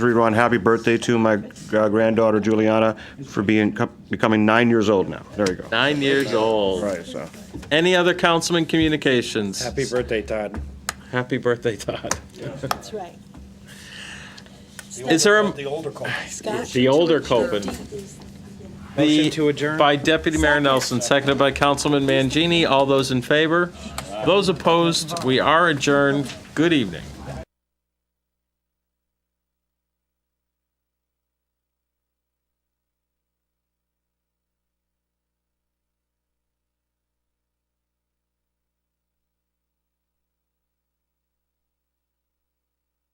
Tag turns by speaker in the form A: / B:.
A: Read on happy birthday to my uh, granddaughter Juliana for being, becoming nine years old now. There you go.
B: Nine years old.
A: Right, so.
B: Any other councilman communications?
C: Happy birthday, Todd.
B: Happy birthday, Todd.
D: That's right.
B: Is there a,
C: The older call.
D: Scott?
B: the older Copen?
C: Motion to adjourn?
B: By Deputy Mayor Nelson, seconded by Councilman Mangini. All those in favor? Those opposed, we are adjourned. Good evening.